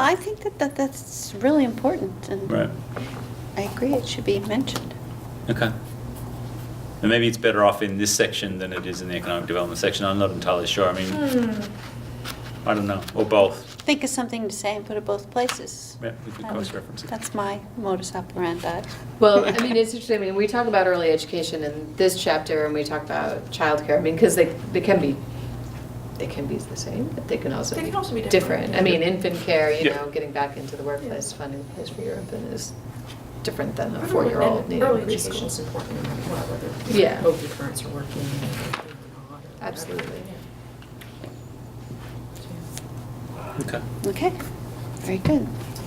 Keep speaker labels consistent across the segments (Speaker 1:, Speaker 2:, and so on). Speaker 1: I think that, that that's really important, and
Speaker 2: Right.
Speaker 1: I agree it should be mentioned.
Speaker 2: Okay. And maybe it's better off in this section than it is in the economic development section. I'm not entirely sure. I mean,
Speaker 3: Hmm.
Speaker 2: I don't know, or both.
Speaker 1: Think of something to say and put it both places.
Speaker 2: Yeah, we could
Speaker 1: Um,
Speaker 2: cross-reference it.
Speaker 1: That's my modus operandi.
Speaker 3: Well, I mean, it's interesting, I mean, we talk about early education in this chapter, and we talk about childcare, I mean, because they, they can be, they can be the same, but they can also
Speaker 4: They
Speaker 3: be
Speaker 4: can also be different.
Speaker 3: different. I mean, infant care, you
Speaker 2: Yeah.
Speaker 3: know, getting back into the workplace,
Speaker 4: Yeah.
Speaker 3: finding a place for your infant is different than a
Speaker 4: And
Speaker 3: four-year-old needing
Speaker 4: Early education is
Speaker 3: preschool.
Speaker 4: important, no matter what, whether.
Speaker 3: Yeah.
Speaker 4: Both your parents are working or not. or
Speaker 3: Absolutely.
Speaker 4: whatever.
Speaker 2: Okay.
Speaker 1: Okay, very good.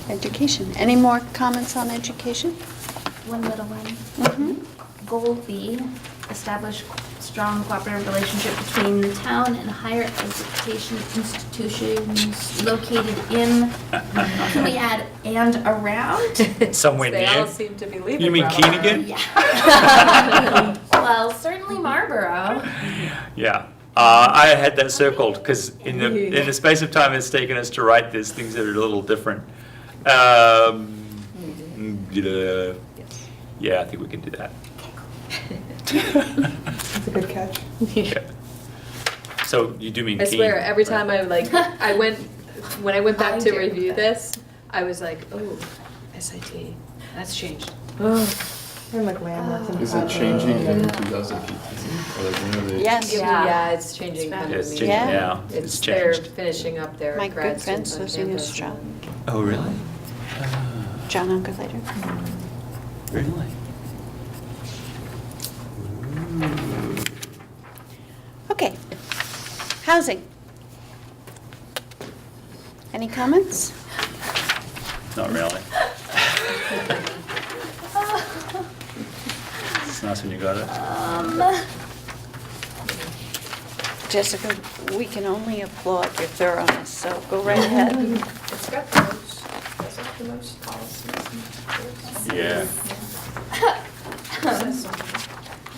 Speaker 1: Education. Any more comments on education?
Speaker 5: One little one.
Speaker 1: Mhm.
Speaker 3: Mm-hmm.
Speaker 5: Goal B, establish strong cooperative relationship between the town and higher education institutions located in, can we add and around?
Speaker 2: Somewhere
Speaker 3: They all
Speaker 2: near.
Speaker 3: seem to be
Speaker 2: You
Speaker 3: leaving
Speaker 2: mean
Speaker 3: Bravo.
Speaker 2: Keenigan?
Speaker 5: Yeah. Well, certainly Marlboro.
Speaker 2: Yeah. Uh, I had that circled because in the, in the space of time it's taken us to write this, things are a little different. Um, yeah.
Speaker 3: Yes.
Speaker 2: yeah, I think we can do that.
Speaker 6: That's a good catch.
Speaker 2: Yeah. So you do mean
Speaker 3: I
Speaker 2: Keene,
Speaker 3: swear, every
Speaker 2: right?
Speaker 3: time I like, I went, when I went
Speaker 5: I
Speaker 3: back to
Speaker 5: do.
Speaker 3: review this, I was like, oh, SIT, that's changed. Oh,
Speaker 6: I'm like
Speaker 4: Ah.
Speaker 6: landmarks and.
Speaker 7: Is it changing in 2015? Or like when are they?
Speaker 1: Yes.
Speaker 5: Uh-huh. Yeah.
Speaker 3: yeah, it's changing
Speaker 5: It's
Speaker 3: kind
Speaker 2: Yeah,
Speaker 3: of
Speaker 2: it's
Speaker 3: me.
Speaker 2: changing
Speaker 1: Yeah.
Speaker 2: now. It's
Speaker 3: It's, they're
Speaker 2: changed.
Speaker 3: finishing up their
Speaker 1: My
Speaker 3: grad
Speaker 1: good friend
Speaker 3: students on
Speaker 1: lives in
Speaker 3: campus
Speaker 1: Eustra.
Speaker 3: and-
Speaker 2: Oh, really?
Speaker 1: John Uncle later.
Speaker 2: Uh, Really?
Speaker 1: Okay. Housing. Any comments?
Speaker 2: Not really. It's nice when you got it.
Speaker 5: Um,
Speaker 1: Jessica, we can only applaud your thoroughness, so go right ahead.
Speaker 4: It's got the most, it's got the most policies.
Speaker 2: Yeah.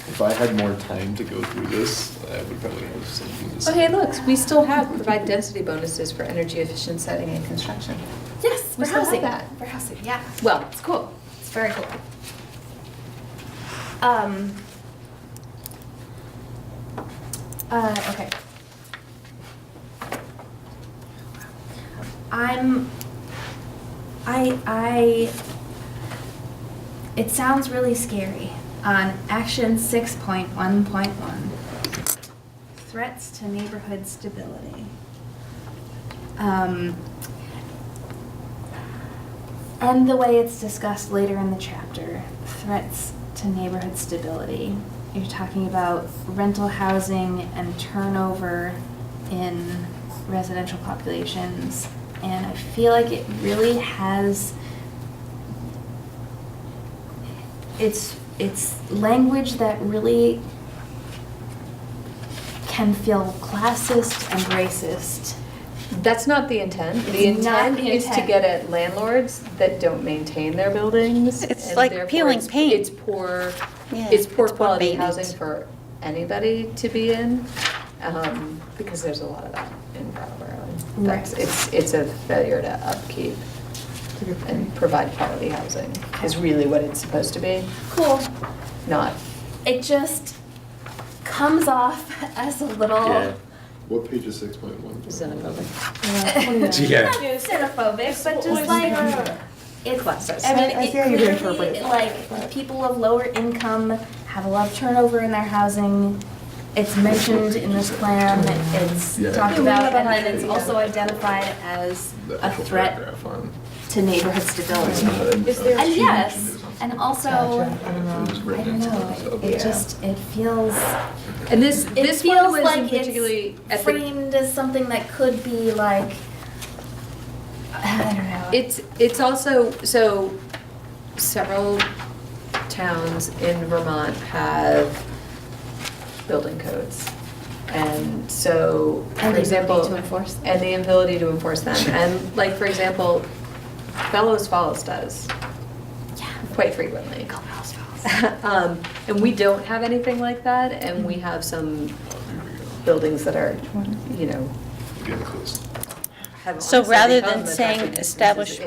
Speaker 7: If I had more time to go through this, I would probably have something to say.
Speaker 3: Oh, hey, looks, we still have provide density bonuses for energy efficient setting and construction.
Speaker 5: Yes,
Speaker 3: We
Speaker 5: for
Speaker 3: still have
Speaker 5: housing.
Speaker 3: that.
Speaker 5: For housing, yeah.
Speaker 3: Well, it's cool.
Speaker 5: It's very cool. Um. Uh, okay. I'm, I, I, it sounds really scary on action six point one point one. Threats to neighborhood stability. Um, and the way it's discussed later in the chapter, threats to neighborhood stability. You're talking about rental housing and turnover in residential populations. And I feel like it really has it's it's language that really can feel classist and racist.
Speaker 3: That's not the intent. The
Speaker 5: It's not
Speaker 3: intent
Speaker 5: the
Speaker 3: is to
Speaker 5: intent.
Speaker 3: get at landlords that don't maintain their buildings.
Speaker 1: It's
Speaker 3: and
Speaker 1: like
Speaker 3: therefore
Speaker 1: peeling
Speaker 3: it's-
Speaker 1: paint.
Speaker 3: It's poor,
Speaker 1: Yeah,
Speaker 3: it's poor
Speaker 1: it's poor
Speaker 3: quality
Speaker 1: maintenance.
Speaker 3: housing for anybody to be in, um, because there's a lot of that in Brattleboro. and That's,
Speaker 5: Right.
Speaker 3: it's, it's a failure to upkeep and provide quality housing is really what it's supposed to be,
Speaker 5: Cool.
Speaker 3: not,
Speaker 5: It just comes off as a little uh,
Speaker 2: Yeah.
Speaker 7: What page is 6.1?
Speaker 3: is in a building.
Speaker 2: Yeah.
Speaker 5: xenophobic, but just like uh, it's
Speaker 3: Classist.
Speaker 5: I mean,
Speaker 6: I- I
Speaker 5: it
Speaker 6: see how you can
Speaker 5: clearly,
Speaker 6: interpret it.
Speaker 5: like people of lower income have a lot of turnover in their housing. It's mentioned in this plan. It's
Speaker 7: Yeah.
Speaker 5: talked
Speaker 7: Yeah, we
Speaker 5: about,
Speaker 6: have
Speaker 5: and
Speaker 6: a
Speaker 5: then it's
Speaker 6: hundred,
Speaker 5: also
Speaker 6: yeah.
Speaker 5: identified as
Speaker 7: The
Speaker 5: a
Speaker 7: actual
Speaker 5: threat
Speaker 7: paragraph on-
Speaker 5: to neighborhood
Speaker 7: It's
Speaker 5: stability.
Speaker 7: not in-
Speaker 4: Is there-
Speaker 7: uh,
Speaker 5: And
Speaker 7: huge
Speaker 5: yes,
Speaker 7: there's not-
Speaker 5: and also,
Speaker 6: Gotcha.
Speaker 7: I don't know if it was
Speaker 5: I
Speaker 7: written
Speaker 5: don't
Speaker 7: into the
Speaker 5: know.
Speaker 7: sub.
Speaker 5: It just it feels.
Speaker 3: And this,
Speaker 5: It
Speaker 3: this one
Speaker 5: feels
Speaker 3: was
Speaker 5: like
Speaker 3: particularly
Speaker 5: it's
Speaker 3: at the
Speaker 5: framed as something that could be like, I don't know.
Speaker 3: It's, it's also, so several towns in Vermont have building codes. And so,
Speaker 5: And
Speaker 3: for
Speaker 5: the
Speaker 3: example.
Speaker 5: ability to enforce them.
Speaker 3: And the ability to enforce them. And like, for example, Fellows Falls does
Speaker 5: yeah.
Speaker 3: quite frequently.
Speaker 5: Go Bells Falls.
Speaker 3: Um, And we don't have anything like that, and we have some
Speaker 7: Oh, here we go.
Speaker 3: buildings that are, you know,
Speaker 7: We're Getting close.
Speaker 1: have.
Speaker 3: So
Speaker 1: honestly
Speaker 3: rather
Speaker 1: become
Speaker 3: than
Speaker 1: the
Speaker 3: saying
Speaker 1: document. This is
Speaker 3: establish
Speaker 1: it.